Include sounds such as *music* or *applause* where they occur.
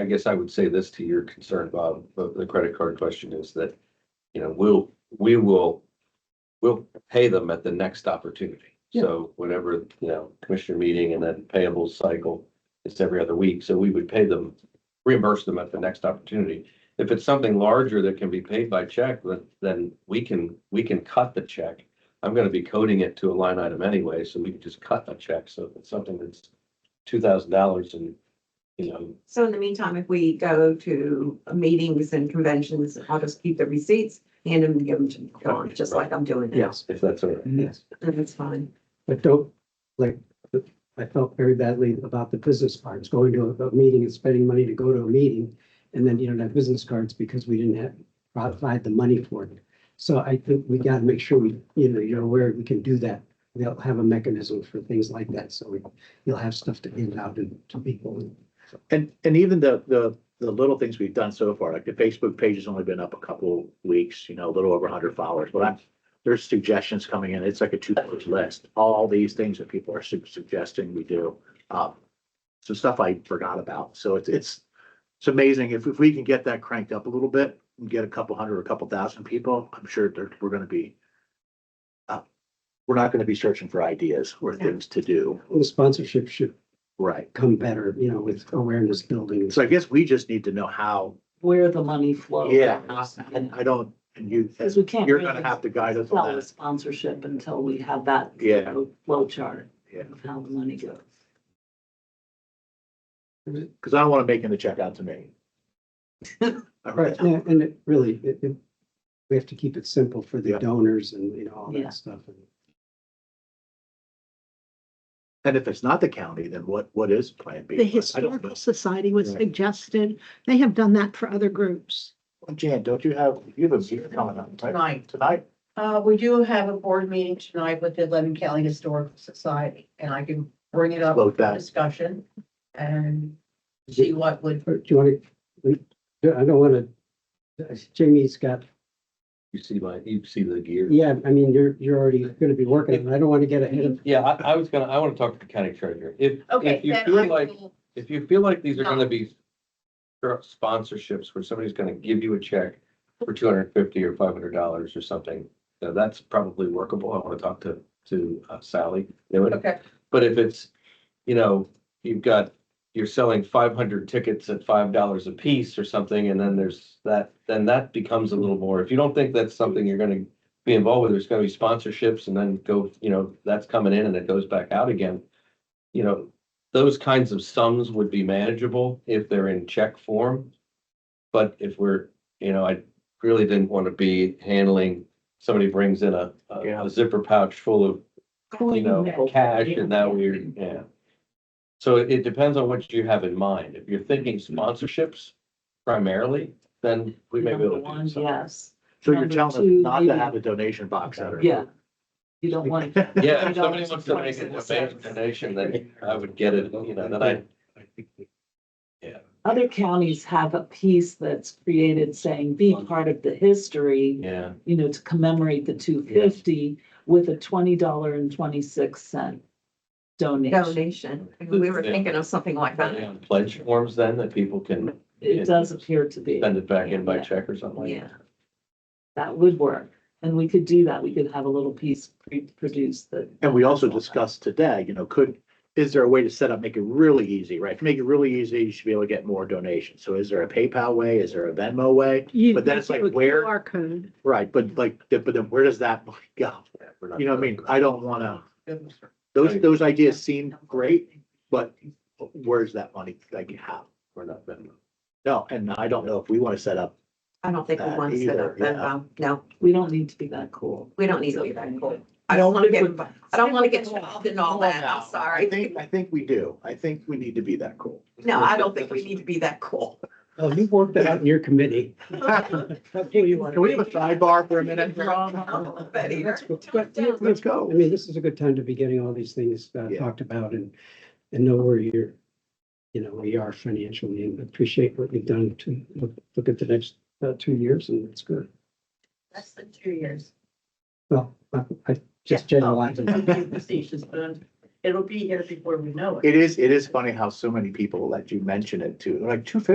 I guess I would say this to your concern about the the credit card question is that, you know, we'll, we will, we'll pay them at the next opportunity. So whenever, you know, commissioner meeting and then payable cycle, it's every other week. So we would pay them, reimburse them at the next opportunity. If it's something larger that can be paid by check, then, then we can, we can cut the check. I'm gonna be coding it to a line item anyway, so we can just cut the check. So if it's something that's two thousand dollars and, you know, So in the meantime, if we go to meetings and conventions, I'll just keep the receipts, hand them and give them to Dawn, just like I'm doing now. Yes, if that's all right. yes, And it's fine. but don't, like, I felt very badly about the business cards, going to a- a meeting and spending money to go to a meeting. And then you don't have business cards because we didn't have, provide the money for it. So I think we gotta make sure we, you know, you're aware we can do that. They'll have a mechanism for things like that, so we, you'll have stuff to hand out to to people. And, and even the, the, the little things we've done so far, like the Facebook page has only been up a couple weeks, you know, a little over hundred followers, but I'm, there's suggestions coming in. It's like a two-page list. All these things that people are su- suggesting we do. Um, some stuff I forgot about. So it's, it's, it's amazing. If, if we can get that cranked up a little bit and get a couple hundred or a couple thousand people, I'm sure there, we're gonna be uh, we're not gonna be searching for ideas or things to do. The sponsorship should Right. come better, you know, with awareness building. So I guess we just need to know how where the money flows. Yeah, and I don't, and you, Because we can't. you're gonna really have to guide us Sell on the that. sponsorship until we have that. Yeah. Flow chart Yeah. of how the money goes. Cause I don't wanna make him the check out to me. All Right, right, yeah, and it really, it, it, we have to keep it simple for the Yeah. donors and, you know, all Yeah. that stuff. and if it's not the county, then what, what is plan B? The I don't know. Historical Society was Right. suggested. They have done that for other groups. Jan, don't you have, you have a meeting coming up, right? Tonight, Tonight? uh, we do have a board meeting tonight with the Lebanon County Historical Society, and I can bring it up Vote for that. discussion and see what would, Or Do you want to, I don't want to, Jamie's got, You see my, you see the gear. yeah, I mean, you're, you're already going to be working, on it. I don't want to get ahead of, Yeah, I, I was gonna, I wanna talk to the county treasurer. If, okay, if you then I feel like, will, if you feel like these are No. gonna be sponsorships where somebody's gonna give you a check for two hundred and fifty or five hundred dollars or something, you know, that's probably workable. I wanna talk to, to uh, Sally. They would- okay, But if it's, you know, you've got, you're selling five hundred tickets at five dollars a piece or something, and then there's that, then that becomes a little more. If you don't think that's something you're gonna be involved with, there's gonna be sponsorships and then go, you know, that's coming in and it goes back out again. You know, those kinds of sums would be manageable if they're in check form. But if we're, you know, I really didn't want to be handling, somebody brings in a, a Yeah. a zipper pouch full of you know, Coin. cash and now we're, yeah. So it it depends on what you have in mind. If you're thinking sponsorships primarily, then we may be able Number to one, do something. Yes, So you're Number telling us two, not to maybe- have a donation box out or. yeah. You don't want. Yeah, I if don't somebody know, wants to make an twenty-six amazing cents. donation, then I would get it, you know, then I, Other counties have a piece that's created saying, be part of the history. yeah. you know, to commemorate the two fifty with a twenty dollar and twenty-six cent donation. Donation. We were thinking of something like that. And Pledge forms then that people can It does appear to be, send it back in by Yeah. check or something like Yeah. that. that would work. And we could do that. We could have a little piece pre- produced that. And we also discussed today, you know, could, is there a way to set up, make it really easy, right? To make it really easy, you should be able to get more donations. So is there a PayPal way? Is there a Venmo way? You- But then it's like, with where- QR code. Right, but like, but then where does that money *laughs* go? Yeah, we're not- You know, what I mean, I don't wanna, goodness, those, those ideas seem great, but where's that money, like, how? We're not, Venmo. No, and I don't know if we wanna set up, I don't think we That want to set either, up that, yeah. um, no, We don't need to be that cool. we don't need to be that cool. I don't want to get, I don't want to get involved in all that. I'm I sorry. think, I think we do, I think we need to be *laughs* that cool. No, I don't think we need to be that cool. oh, you've worked that out in your committee. *laughs* Can we have a sidebar for a minute? But here. But- Let's I go. mean, this is a good time to be getting all these things uh, Yeah. talked about and, and know where you're, you know, we are financially and appreciate what you've done to look, look at the next uh, two years and it's good. less than two years. Well, I- I just Oh, generalizing. Facetious, but It'll be here before we know it. It is, it is funny how so many people that you mention it to, They're like two fifty